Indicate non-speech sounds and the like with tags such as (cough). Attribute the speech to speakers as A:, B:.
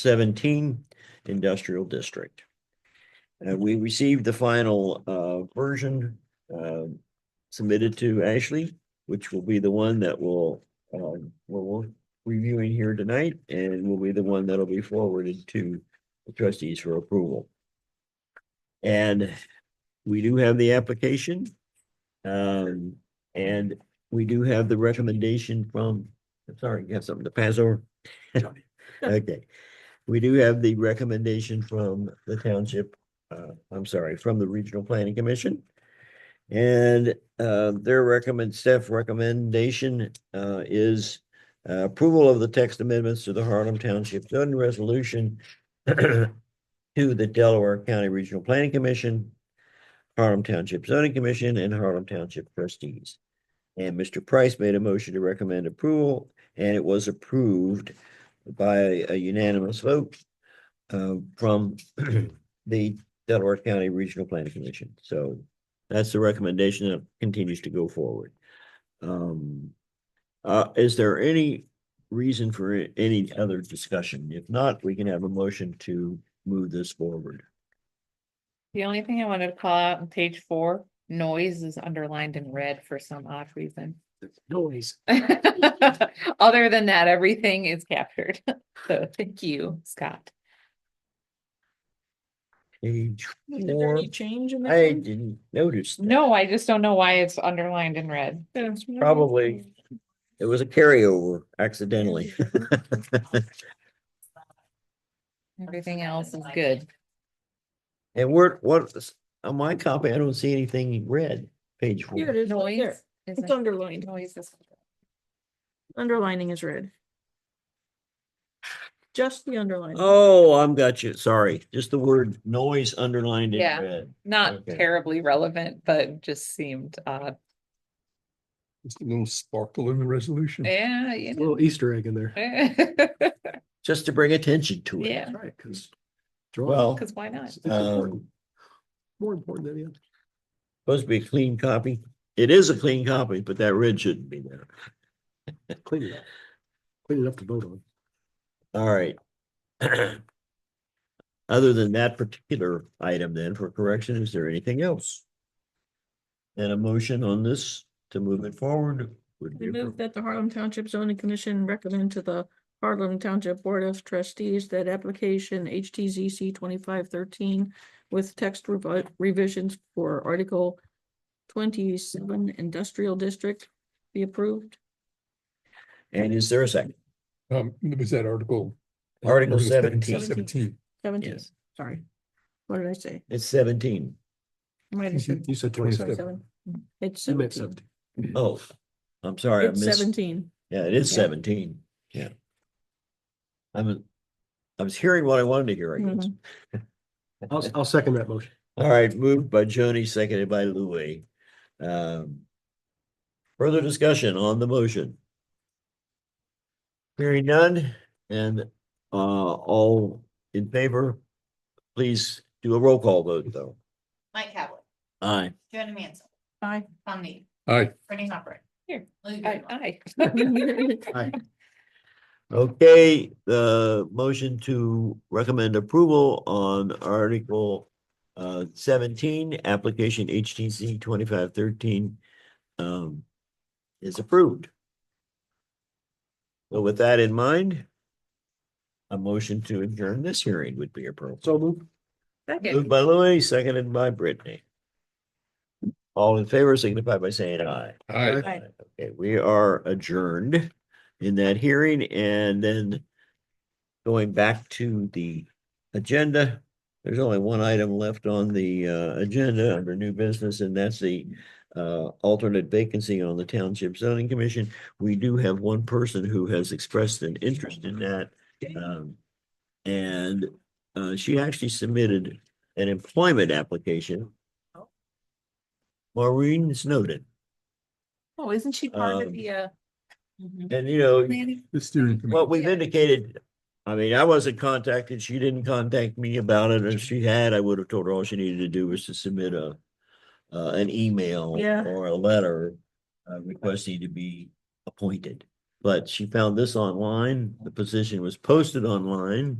A: seventeen industrial district. Uh, we received the final, uh, version, uh, submitted to Ashley, which will be the one that will, um, we're, we're reviewing here tonight and will be the one that'll be forwarded to the trustees for approval. And we do have the application. Um, and we do have the recommendation from, I'm sorry, you have something to pass over? (laughs) Okay, we do have the recommendation from the township, uh, I'm sorry, from the Regional Planning Commission. And, uh, their recommend, staff recommendation, uh, is uh, approval of the text amendments to the Harlem Township zoning resolution (clears throat) to the Delaware County Regional Planning Commission, Harlem Township Zoning Commission, and Harlem Township trustees. And Mr. Price made a motion to recommend approval, and it was approved by a unanimous vote uh, from (clears throat) the Delaware County Regional Planning Commission. So that's the recommendation that continues to go forward. Um, uh, is there any reason for a- any other discussion? If not, we can have a motion to move this forward.
B: The only thing I wanted to call out on page four, noise is underlined in red for some odd reason. (laughs)
C: Noise.
B: Other than that, everything is captured. (laughs) So thank you, Scott.
A: Page
C: Is there
A: four,
C: any change in that?
A: I
C: one?
A: didn't notice. that.
B: No, I just don't know why it's underlined in red.
C: That's what I
A: Probably.
C: thought.
A: It was a carryover
C: (laughs)
A: accidentally.
B: Everything else is good.
A: And where, what, on my copy, I don't see anything red, page
C: Here it
A: four.
C: is, right there.
B: Noise. is
C: It's underlined.
B: Noise is.
C: Underlining is red. Just the underline.
A: Oh, I'm got you, sorry, just the word noise underlined in
B: Yeah.
A: red.
B: Not
A: Okay.
B: terribly relevant, but just seemed odd.
D: Just a little sparkle in the
A: Hmm.
D: resolution.
B: Yeah, you know. (laughs)
E: Little Easter egg in there.
A: Just to bring attention to it.
B: Yeah,
E: That's right, because.
A: Well,
B: because
A: (laughs)
B: why not?
A: um,
E: More important than the other.
A: supposed to be a clean copy, it is a clean copy, but that red shouldn't be there.
E: Clean it up. Clean it up to vote on.
A: All right. (clears throat) Other than that particular item then for correction, is there anything else? And a motion on this to move it forward would
C: I
A: be.
C: move that the Harlem Township Zoning Commission recommend to the Harlem Township Board of Trustees that application HTZC twenty-five thirteen with text revi- revisions for Article twenty-seven Industrial District be approved.
A: And is there a second?
D: Um, was that article?
A: Article 17.
D: Seventeen.
C: Seventeen,
A: Yes.
C: sorry. What did I say?
A: It's seventeen.
E: (laughs)
C: Might have said
E: You said
D: Twenty-seven.
E: twenty-seven.
C: seven. It's
E: You meant
C: seventeen.
E: seventeen.
A: Oh, I'm sorry, I
C: It's
A: missed.
C: seventeen.
A: Yeah, it is
C: Yeah.
A: seventeen. Yeah. I'm, I was hearing what I wanted to hear, I guess.
C: Mm-hmm.
E: I'll, I'll second that motion.
A: All right, moved by Joni, seconded by Louis. Um. Further discussion on the motion. Hearing none and uh all in favor, please do a roll call vote though.
F: Mike Kavler,
A: Aye.
F: Joanna Mansell,
C: Aye.
F: Tom Need,
D: Aye,
F: Brittany Hopper.
B: Here.
F: Lou
B: I,
F: Greenwell.
B: (laughs) I.
E: Aye.
A: Okay, the motion to recommend approval on Article uh seventeen, application HTC twenty-five thirteen um is approved. So with that in mind, a motion to adjourn this hearing would be appropriate.
E: So move.
A: Moved by Louis, seconded by Brittany. All in favor signify by saying aye.
D: aye.
C: Aye.
A: Okay, we are adjourned in that hearing and then going back to the agenda. There's only one item left on the uh agenda under new business and that's the uh alternate vacancy on the Township Zoning Commission. We do have one person who has expressed an interest in that. Um, and uh she actually submitted an employment application. Maureen Snowden,
C: Oh, isn't she
A: Um,
C: uh?
A: and you know,
D: The steering committee.
A: Well, we've indicated, I mean, I wasn't contacted, she didn't contact me about it, if she had, I would have told her all she needed to do was to submit a. Uh, an email
C: Yeah.
A: or a letter, uh, requesting to be appointed, But she found this online, the position was posted online.